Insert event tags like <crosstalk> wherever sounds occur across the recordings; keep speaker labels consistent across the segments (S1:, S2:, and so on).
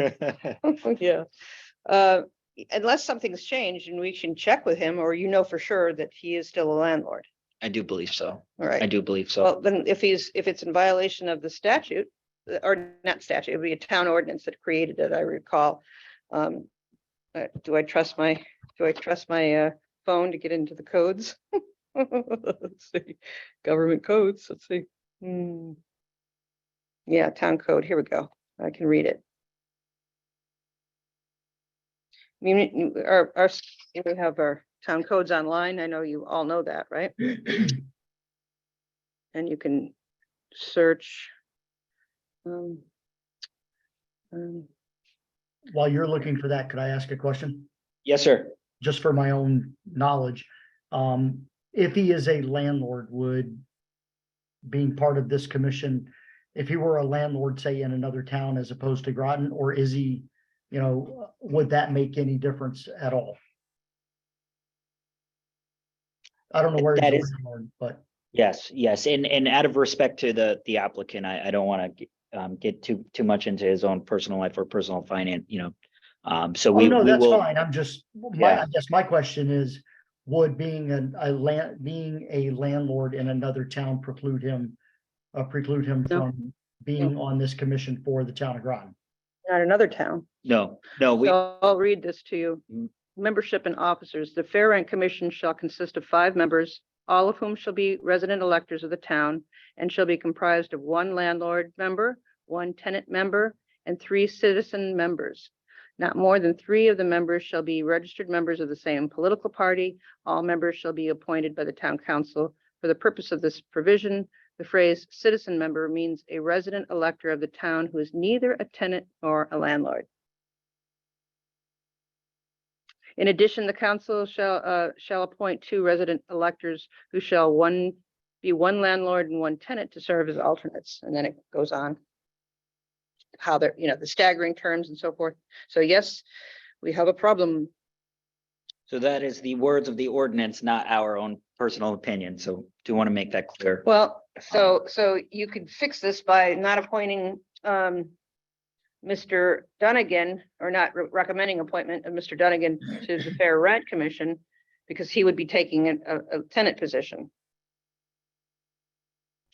S1: <laughs> Yeah. Uh, Unless something's changed and we can check with him, or you know for sure that he is still a landlord,
S2: <laughs> I do believe so.
S1: all
S2: I
S1: right?
S2: do believe so.
S1: Well, then if he's, if it's in violation of the statute, uh, or not statute, it'd be a town ordinance that created it, I recall. Um, uh, Do I trust my, do I trust my uh, phone to get into the codes? <laughs> Let's see, government codes, let's see. Hmm. Yeah, town code, here we go. I can read it. Muni- Our, our, we have our town codes online. I know you all know that, right? And you can search. um, um,
S3: While you're looking for that, could I ask a question?
S2: Yes, sir.
S3: Just for my own knowledge. Um, if he is a landlord, would being part of this commission, if he were a landlord, say in another town as opposed to Groton, or is he, you know, would that make any difference at all? I don't know where. he's
S2: That
S3: a
S2: is-
S3: landlord, But
S2: Yes, yes, and and out of respect to the the applicant, I I don't want to um get too too much into his own personal life or personal finance, you know. Um, so
S3: Oh,
S2: we
S3: no,
S2: we
S3: that's
S2: will,
S3: fine. I'm just, my,
S2: Yeah.
S3: I guess my question is, would being a, a land, being a landlord in another town preclude him? Uh, preclude him
S1: No.
S3: from being on this commission for the town of Groton?
S1: Not another town.
S2: no, no, we,
S1: So I'll read this to you.
S2: Mm.
S1: Membership and officers, the Fair Rent Commission shall consist of five members, all of whom shall be resident electors of the town and shall be comprised of one landlord member, one tenant member, and three citizen members. Not more than three of the members shall be registered members of the same political party. All members shall be appointed by the town council. For the purpose of this provision, the phrase citizen member means a resident elector of the town who is neither a tenant nor a landlord. In addition, the council shall, uh, shall appoint two resident electors who shall one, be one landlord and one tenant to serve as alternates, and then it goes on. How they're, you know, the staggering terms and so forth. So yes, we have a problem.
S2: so that is the words of the ordinance, not our own personal opinion, so do want to make that clear.
S1: Well, so, so you could fix this by not appointing, um, Mr. Dunnigan, or not re- recommending appointment of Mr. Dunnigan to the Fair Rent Commission, because he would be taking an- a, a tenant position.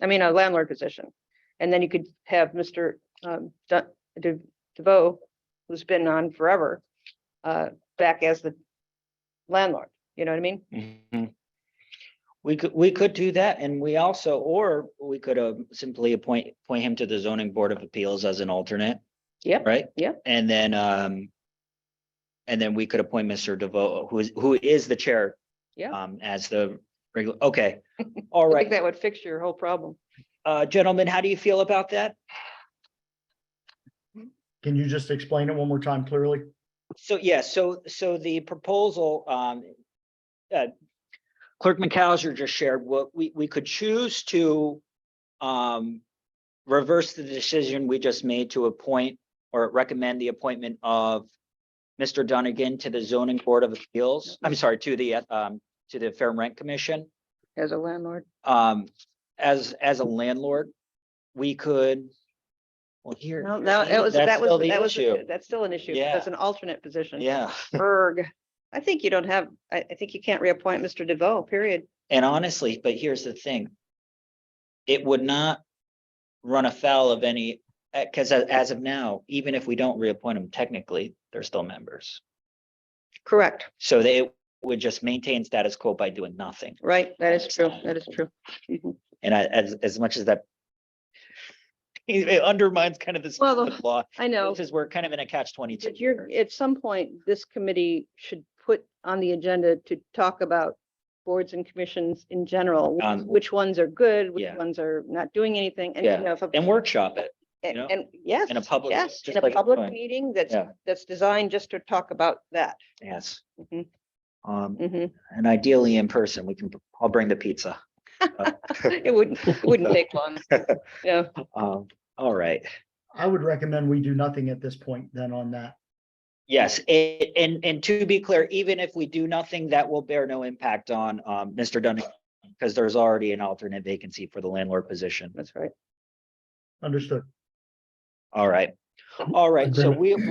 S1: I mean, a landlord position. And then you could have Mr. um, Dun- De- DeVoe, who's been on forever, uh, back as the landlord, you know what I mean?
S2: Mhm. We could, we could do that, and we also, or we could uh simply appoint, appoint him to the zoning board of appeals as an alternate.
S1: Yep,
S2: Right?
S1: yep.
S2: And then, um. And then we could appoint Mr. DeVoe, who is, who is the chair.
S1: Yeah.
S2: Um, as the regular,
S1: <laughs>
S2: okay, all
S1: I think
S2: right,
S1: that would fix your whole problem.
S2: uh, gentlemen, how do you feel about that?
S3: Can you just explain it one more time clearly?
S2: So, yeah, so, so the proposal, um, uh, Clerk McCauser just shared, what we, we could choose to, um, reverse the decision we just made to appoint or recommend the appointment of Mr. Dunnigan to the zoning board of appeals, I'm sorry, to the, uh, um, to the Fair Rent Commission,
S1: As a landlord.
S2: um, as, as a landlord. We could, well, here.
S1: No, no, that was,
S2: that's
S1: that
S2: still
S1: was,
S2: the
S1: that was,
S2: issue.
S1: that's still an issue. 'cause
S2: Yeah.
S1: That's an alternate position.
S2: Yeah.
S1: Erg. I think you don't have, I, I think you can't reappoint Mr. DeVoe, period.
S2: And honestly, but here's the thing. It would not run afoul of any, because as of now, even if we don't reappoint them, technically, they're still members.
S1: Correct,
S2: So they would just maintain status quo by doing nothing.
S1: right? That is true. That is true. Mhm.
S2: And I, as, as much as that <laughs> it undermines kind of this
S1: Well, the- <laughs>
S2: law,
S1: I know.
S2: because we're kind of in a catch twenty-two.
S1: But you're, at some point, this committee should put on the agenda to talk about boards and commissions in general, which-
S2: Um,
S1: which ones are good, which
S2: yeah.
S1: ones are not doing anything. And, you
S2: Yeah.
S1: know, if a
S2: And workshop it. you
S1: And,
S2: know,
S1: and yes.
S2: in a public-
S1: Yes,
S2: just
S1: in a
S2: like it's
S1: public
S2: going.
S1: meeting that's,
S2: Yeah.
S1: that's designed just to talk about that.
S2: Yes.
S1: Mhm.
S2: Um,
S1: Mhm.
S2: and ideally in person, we can, I'll bring the pizza.
S1: It wouldn't, it wouldn't take long. Yeah,
S2: Um, all right.
S3: I would recommend we do nothing at this point then on that.
S2: Yes, a- and, and to be clear, even if we do nothing, that will bear no impact on, um, Mr. Dunning. Because there's already an alternate vacancy for the landlord position.
S1: that's right.
S3: Understood.
S2: All right. All right, so we,